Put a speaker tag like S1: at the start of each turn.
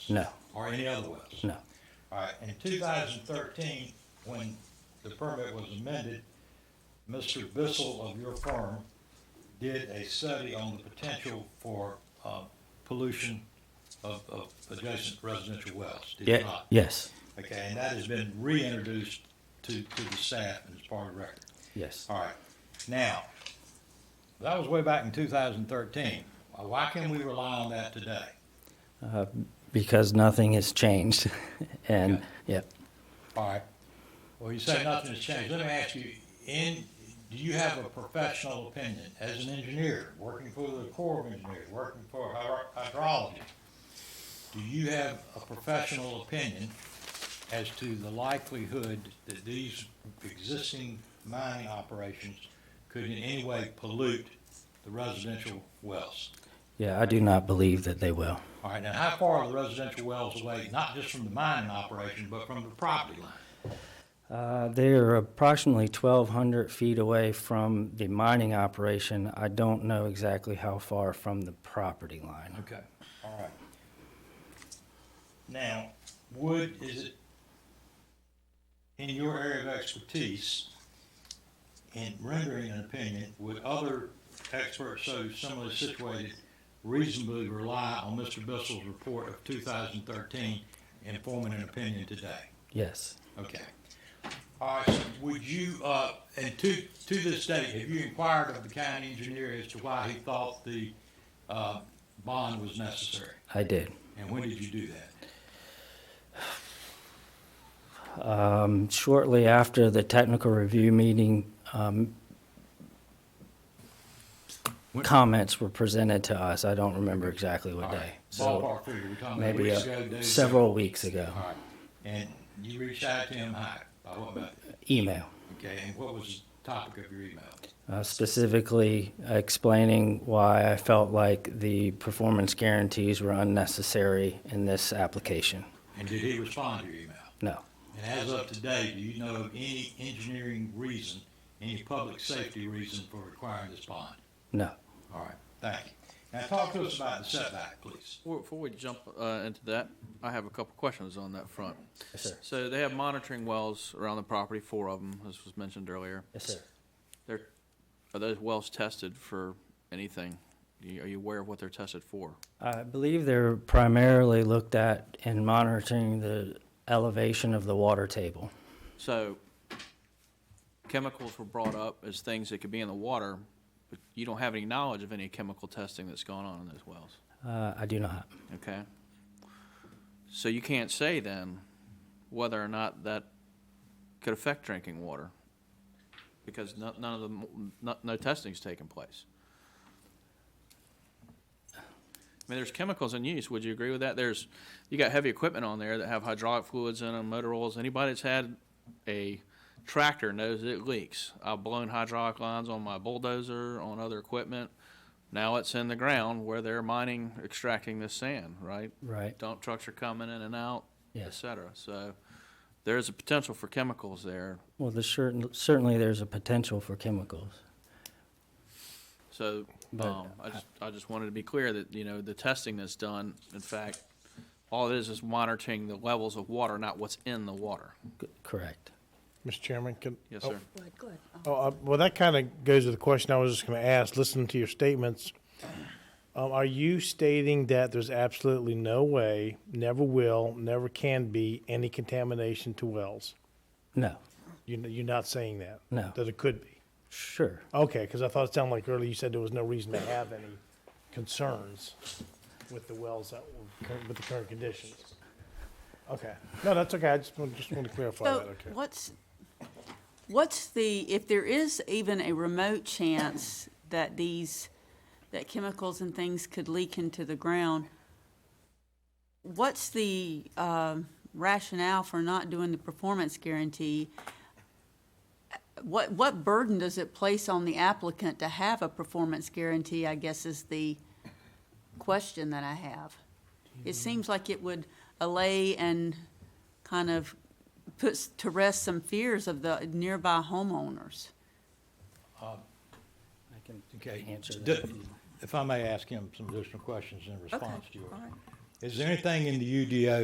S1: No,
S2: or any other wells?
S1: no.
S2: All right, in two thousand thirteen, when the permit was amended, Mr. Bissell of your firm did a study on the potential for, uh, pollution of, of adjacent residential wells, did you
S1: Yeah,
S2: not?
S1: yes,
S2: Okay, and that has been reintroduced to, to the staff and it's part of the record.
S1: yes.
S2: All right, now, that was way back in two thousand thirteen. Why can we rely on that today?
S1: Uh, Because nothing has changed. And,
S2: Okay.
S1: yeah,
S2: All right. Well, you say nothing's changed. Let me ask you, in, do you have a professional opinion as an engineer, working for the Corps of Engineers, working for hydro- hydrology? Do you have a professional opinion as to the likelihood that these existing mining operations could in any way pollute the residential wells?
S1: yeah, I do not believe that they will.
S2: All right, now how far are the residential wells away, not just from the mining operation, but from the property line?
S1: Uh, They're approximately 1,200 feet away from the mining operation. I don't know exactly how far from the property line.
S2: Okay, all right. Now, would, is it, in your area of expertise, in rendering an opinion, would other experts so similarly situated reasonably rely on Mr. Bissell's report of two thousand thirteen in forming an opinion today?
S1: Yes,
S2: Okay. All right, so would you, uh, and to, to this day, have you inquired of the county engineer as to why he thought the, uh, bond was necessary?
S1: I did.
S2: And when did you do that?
S1: Um, Shortly after the technical review meeting, um,
S2: When-
S1: comments were presented to us. I don't remember exactly
S2: All
S1: what day.
S2: right,
S1: So
S2: Ballpark figure, we're talking about
S1: maybe
S2: weeks
S1: uh,
S2: ago, days ago?
S1: several weeks ago.
S2: All right, and you reached out to him, hi, by what method?
S1: Email.
S2: Okay, and what was the topic of your email?
S1: uh, specifically explaining why I felt like the performance guarantees were unnecessary in this application.
S2: And did he respond to your email?
S1: No,
S2: And as of today, do you know of any engineering reason, any public safety reason for requiring this bond?
S1: no.
S2: All right, thank you. Now, talk to us about the setback, please.
S3: Before, before we jump uh, into that, I have a couple questions on that front.
S1: Yes, sir.
S3: So they have monitoring wells around the property, four of them, as was mentioned earlier.
S1: Yes, sir.
S3: They're, are those wells tested for anything? Do you- Are you aware of what they're tested for?
S1: I believe they're primarily looked at in monitoring the elevation of the water table.
S3: So chemicals were brought up as things that could be in the water, but you don't have any knowledge of any chemical testing that's gone on in those wells,
S1: Uh, I do not.
S3: okay? So you can't say then whether or not that could affect drinking water because no- none of the, m- no- no testing's taken place. I mean, there's chemicals in use. Would you agree with that? There's, you got heavy equipment on there that have hydraulic fluids in them, motor oils. Anybody that's had a tractor knows it leaks. I've blown hydraulic lines on my bulldozer, on other equipment. Now it's in the ground where they're mining, extracting this sand, right?
S1: Right.
S3: Dump trucks are coming in and out, et
S1: Yes.
S3: cetera. So there is a potential for chemicals there.
S1: Well, the certain, certainly there's a potential for chemicals.
S3: So,
S1: But
S3: um, I just, I just wanted to be clear that, you know, the testing that's done, in fact, all it is is monitoring the levels of water, not what's in the water.
S1: C- Correct.
S4: Mr. Chairman, can?
S3: Yes,
S4: oh,
S3: sir.
S5: Good, good.
S4: oh, uh, well, that kind of goes to the question I was just going to ask, listening to your statements. Um, are you stating that there's absolutely no way, never will, never can be any contamination to wells?
S1: No,
S4: You, you're not saying that?
S1: No.
S4: That it could be?
S1: sure.
S4: Okay, because I thought it sounded like earlier you said there was no reason to have any concerns with the wells that were, cur- with the current conditions. Okay, no, that's okay, I just, want- just want to clarify that,
S5: So
S4: okay.
S5: what's, what's the, if there is even a remote chance that these, that chemicals and things could leak into the ground, what's the um, rationale for not doing the performance guarantee? What, what burden does it place on the applicant to have a performance guarantee, I guess is the question that I have. It seems like it would allay and kind of puts to rest some fears of the nearby homeowners.
S1: I can
S2: Okay.
S1: answer
S2: d-
S1: that.
S2: If I may ask him some additional questions in response to your
S5: all right.
S2: Is there anything in the UDO